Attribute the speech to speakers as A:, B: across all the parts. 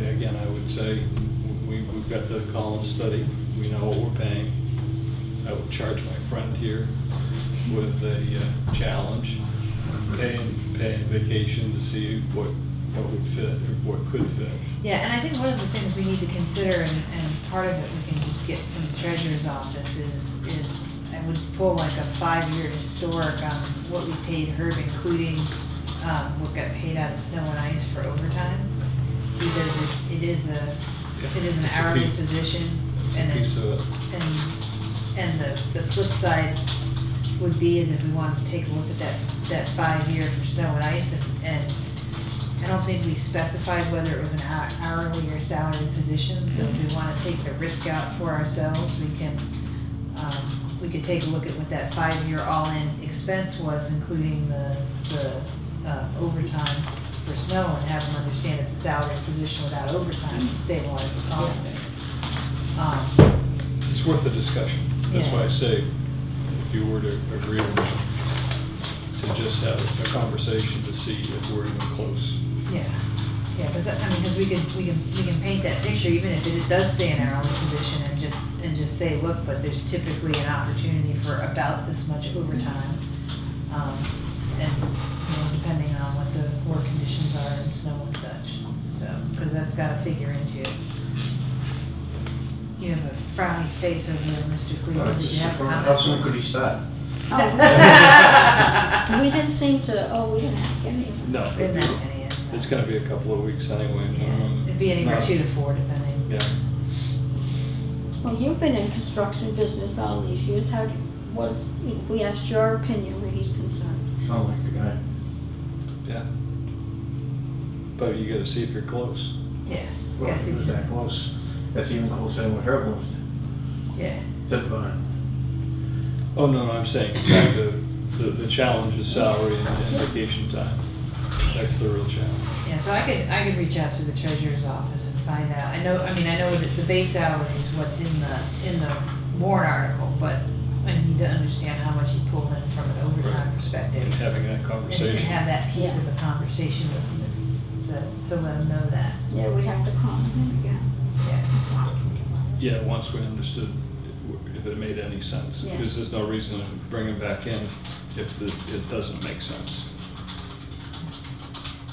A: would say, we, we've got the Collins study, we know what we're paying. I would charge my friend here with a uh, challenge, paying, paying vacation to see what, what would fit or what could fit.
B: Yeah, and I think one of the things we need to consider, and, and part of it we can just get from the treasurer's office is, is I would pull like a five-year historic on what we paid Herb, including, um, what got paid out of snow and ice for overtime. Because it- it is a, it is an
A: It's a
B: hourly
A: piece-
B: position,
A: It's
B: and
A: a
B: it-
A: piece of it.
B: And, and the, the flip side would be is if we wanted to take a look at that, that five-year for snow and ice and, and I don't think we specified whether it was an hou- hourly or salary position, so if we wanna take the risk out for ourselves, we can, um, we could take a look at what that five-year all-in expense was, including the, the uh, overtime for snow and have them understand it's a salary position without overtime and stabilize the cost. Um,
A: It's worth a discussion. That's
B: Yeah.
A: why I say, if you were to agree on it, to just have a conversation to see if we're even close.
B: Yeah, yeah, because, I mean, because we can, we can, we can paint that picture, even if it does stay in our own position and just, and just say, look, but there's typically an opportunity for about this much overtime. Um, And, you know, depending on what the work conditions are and snow and such, so, because that's got to figure into it. You have a frowny face over there, Mr.
C: Uh,
B: Cleveland, did you
C: just
B: have a
C: from-
B: comment?
C: How soon could he start?
D: And We didn't seem to, oh, we didn't ask anyone.
C: No.
B: Didn't ask any of that.
A: It's gonna be a couple of weeks anyway.
B: Yeah,
A: um,
B: It'd be anywhere
A: not-
B: two to four, depending.
A: Yeah,
D: Well, you've been in construction business all these years, how, was, we asked your opinion where he's concerned.
C: Sound like the guy.
A: yeah. But you gotta see if you're close.
B: Yeah.
C: Well,
B: Yes,
C: he
B: it
C: was
B: is.
C: that close. That's even closer than what Herb was.
B: Yeah.
C: Tip on.
A: Oh, no, I'm saying, back to, the, the challenge is salary and and vacation time. That's the real challenge.
B: Yeah, so I could, I could reach out to the treasurer's office and find out. I know, I mean, I know that the base salary is what's in the, in the warrant article, but I need to understand how much you pulled in from an overtime
A: Right.
B: perspective.
A: And having that
B: And you can
A: conversation.
B: have that piece of
D: Yeah.
B: the conversation with them, to, to let them know that,
D: Yeah, we have to call him again.
B: yeah.
A: Yeah, once we understood if it made any sense,
D: Yeah.
A: because there's no reason to bring them back in if the- it doesn't make sense.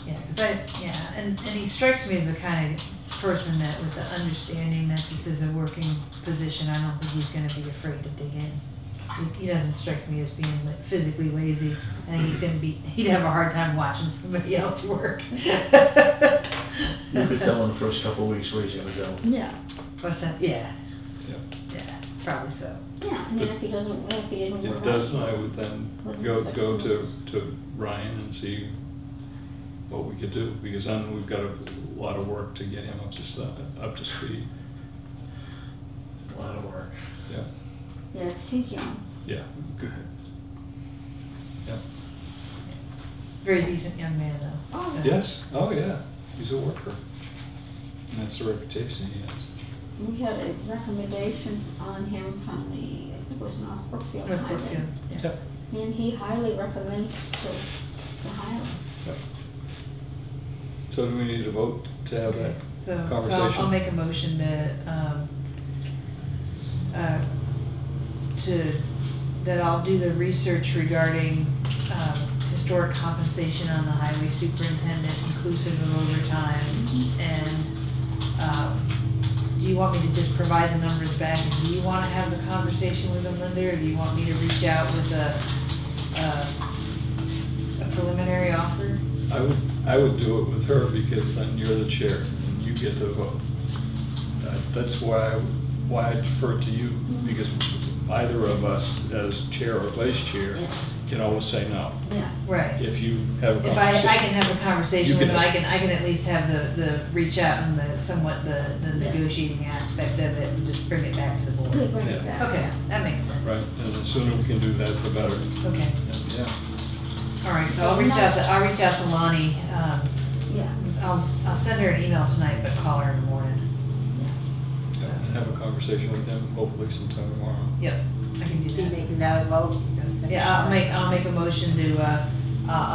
B: Yeah, 'cause I, yeah, and, and he strikes me as the kind of person that with the understanding that this is a working position, I don't think he's gonna be afraid to dig in. He- He doesn't strike me as being like, physically lazy, I think he's gonna be, he'd have a hard time watching somebody else work.
C: You could tell in the first couple of weeks where he's gonna go.
D: Yeah,
B: What's that, yeah,
A: Yeah.
B: yeah, probably so.
D: yeah, and then if he doesn't, if he didn't work.
A: If
D: out-
A: doesn't, I would then go, go to, to Ryan and see what we could do, because I know we've got a lot of work to get him up to, stu- up to speed.
C: A lot of work.
A: Yeah,
D: Yeah, 'cause he's young.
A: yeah, good. Yeah.
B: Very decent young man though.
D: Oh.
B: So-
A: Yes, oh, yeah, he's a worker. And that's the reputation he has.
D: We had a recommendation on him from the, I think it was North Brookfield
B: North
D: Highway.
B: Brookfield, yeah.
A: Yep.
D: And he highly recommends to, to hire him.
A: Yep. So do we need a vote to have that
B: So, so I'll- I'll
A: conversation?
B: make a motion that, um, uh, to, that I'll do the research regarding, um, historic compensation on the highway superintendent inclusive of overtime. And, um, do you want me to just provide the numbers back? Do you wanna have the conversation with them, Linda, or do you want me to reach out with a, a a preliminary offer?
A: I would, I would do it with her because then you're the chair and you get to vote. Uh, That's why, I- why I defer to you, because either of us as chair or vice chair
D: Yeah.
A: can always say no.
D: Yeah.
B: Right.
A: If you have a
B: If I, I
A: conversation.
B: can have a
A: Oh, You
B: conversation
A: can
B: with them, I
A: have-
B: can, I can at least have the, the reach out and the somewhat the, the
D: Yeah.
B: negotiating aspect of it and just bring it back to the board.
D: We bring
A: Yeah.
D: it back.
B: Okay, that makes sense.
A: Right, and the sooner we can do that, the better.
B: Okay,
A: And, Yeah,
B: all right, so I'll reach out to, I'll reach out to Lonnie, um,
D: Yeah,
B: I'll, I'll send her an email tonight, but call her in the morning.
A: Yeah, and have a conversation with them hopefully sometime tomorrow.
B: Yep, I can do
E: Be
B: that.
E: making that a vote.
B: Yeah, I'll make, I'll make a motion to, uh, uh, I'll